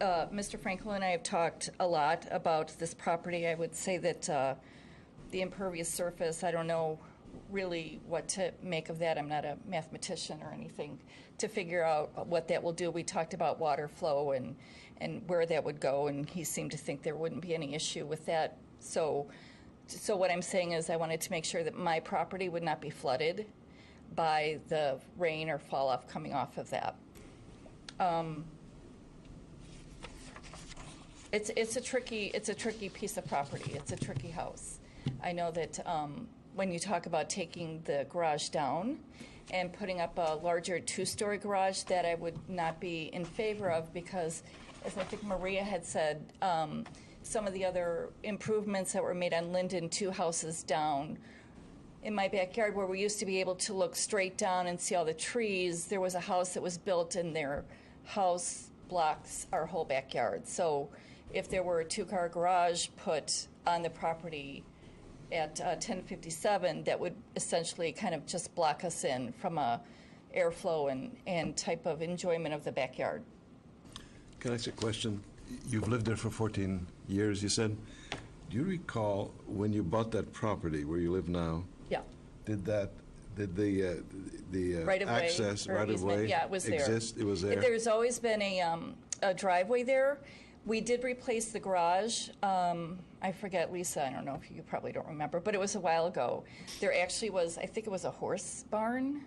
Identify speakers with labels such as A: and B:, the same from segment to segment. A: Uh, Mr. Frankel and I have talked a lot about this property. I would say that uh, the impervious surface, I don't know really what to make of that. I'm not a mathematician or anything to figure out what that will do. We talked about water flow and, and where that would go, and he seemed to think there wouldn't be any issue with that. So, so what I'm saying is I wanted to make sure that my property would not be flooded by the rain or fall off coming off of that. It's, it's a tricky, it's a tricky piece of property. It's a tricky house. I know that um, when you talk about taking the garage down and putting up a larger two-story garage, that I would not be in favor of because, as I think Maria had said, um, some of the other improvements that were made on Linden, two houses down, in my backyard where we used to be able to look straight down and see all the trees, there was a house that was built and their house blocks our whole backyard. So if there were a two-car garage put on the property at uh, 1057, that would essentially kind of just block us in from a airflow and, and type of enjoyment of the backyard.
B: Can I ask a question? You've lived there for 14 years, you said. Do you recall when you bought that property where you live now,
A: Yeah.
B: did that, did the, uh, the uh,
A: right of way.
B: access,
A: or
B: right of
A: easement.
B: way?
A: Yeah, it was there.
B: Exist, it was there?
A: There's always been a, um, a driveway there. We did replace the garage. Um, I forget, Lisa, I don't know if you probably don't remember, but it was a while ago. There actually was, I think it was a horse barn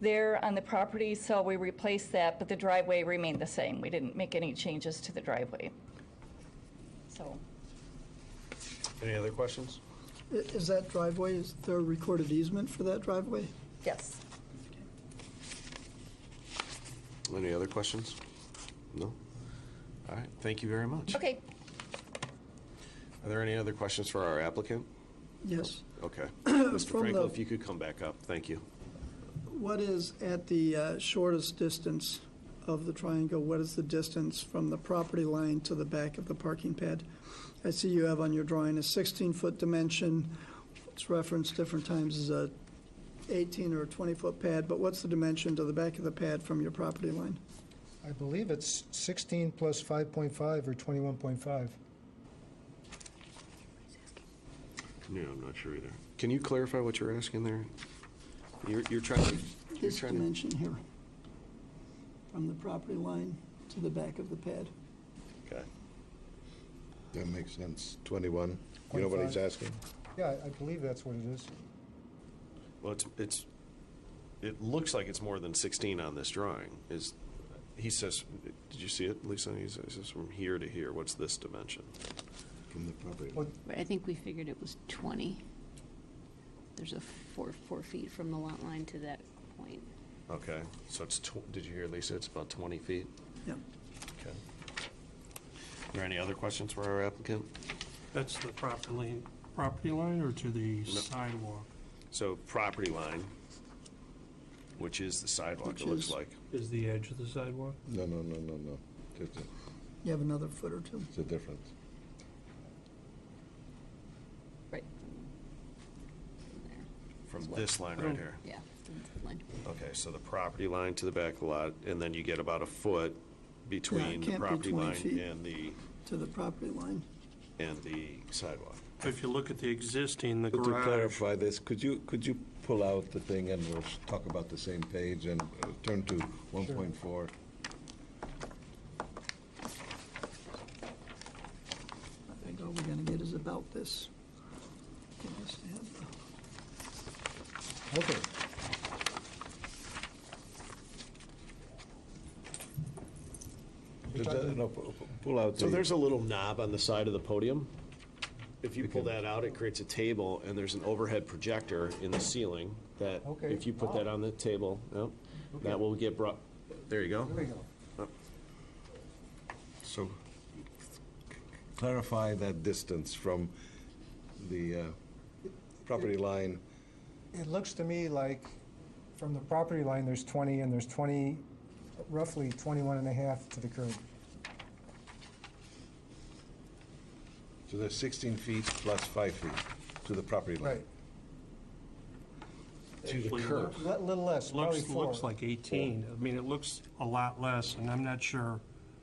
A: there on the property, so we replaced that, but the driveway remained the same. We didn't make any changes to the driveway. So,
C: Any other questions?
D: I- Is that driveway, is there a recorded easement for that driveway?
A: yes.
C: Any other questions? No? All right, thank you very much.
A: Okay,
C: Are there any other questions for our applicant?
D: Yes.
C: Okay. Mr.
D: From
C: Frankel,
D: the-
C: if you could come back up, thank you.
D: What is at the uh, shortest distance of the triangle? What is the distance from the property line to the back of the parking pad? I see you have on your drawing a 16-foot dimension. It's referenced different times as a 18 or 20-foot pad, but what's the dimension to the back of the pad from your property line?
E: I believe it's 16 plus 5.5 or 21.5.
C: No, I'm not sure either. Can you clarify what you're asking there? You're, you're trying to, you're
D: This
C: trying
D: dimension here, from the property line to the back of the pad.
C: to, okay.
B: That makes sense. 21. You know what he's
E: 25.
B: asking?
E: Yeah, I- I believe that's what it is.
C: Well, it's, it's, it looks like it's more than 16 on this drawing. Is, he says, did you see it, Lisa? He says it's from here to here. What's this dimension?
B: From the property.
E: What-
F: But I think we figured it was 20. There's a four, four feet from the lot line to that point.
C: Okay, so it's, tw- did you hear Lisa? It's about 20 feet?
D: Yeah.
C: Okay. Are there any other questions for our applicant?
G: That's the property, property line or to the sidewalk?
C: So property line, which is the sidewalk,
D: Which
C: it looks
D: is-
C: like.
G: Is the edge of the sidewalk?
B: No, no, no, no, no. It's a-
D: You have another foot or two.
B: it's a difference.
F: Right. From there.
C: From this line
D: Oh.
C: right here.
F: Yeah, that's the line.
C: Okay, so the property line to the back lot, and then you get about a foot between the
D: can't be
C: property
D: 20
C: line
D: feet.
C: and the,
D: to the property line.
C: and the sidewalk.
G: If you look at the existing, the
B: But to
G: garage,
B: clarify this, could you, could you pull out the thing and we'll talk about the same page and uh, turn to 1.4?
D: I think all we're gonna get is about this. Give us that.
E: Okay.
B: Just, uh, No, pu- pu- pull out the.
C: So there's a little knob on the side of the podium. If you pull that out, it creates a table, and there's an overhead projector in the ceiling that,
E: Okay.
C: if you put that on the table, yep, that will get brought, there you go.
E: There we go.
B: So clarify that distance from the uh, property line.
E: It looks to me like from the property line, there's 20, and there's 20, roughly 21 and a half to the curb.
B: So there's 16 feet plus 5 feet to the property line.
C: To the
G: Actually,
C: curb.
E: A little less, probably
G: looks,
E: four.
G: looks like 18. I mean, it looks a lot less, and I'm not sure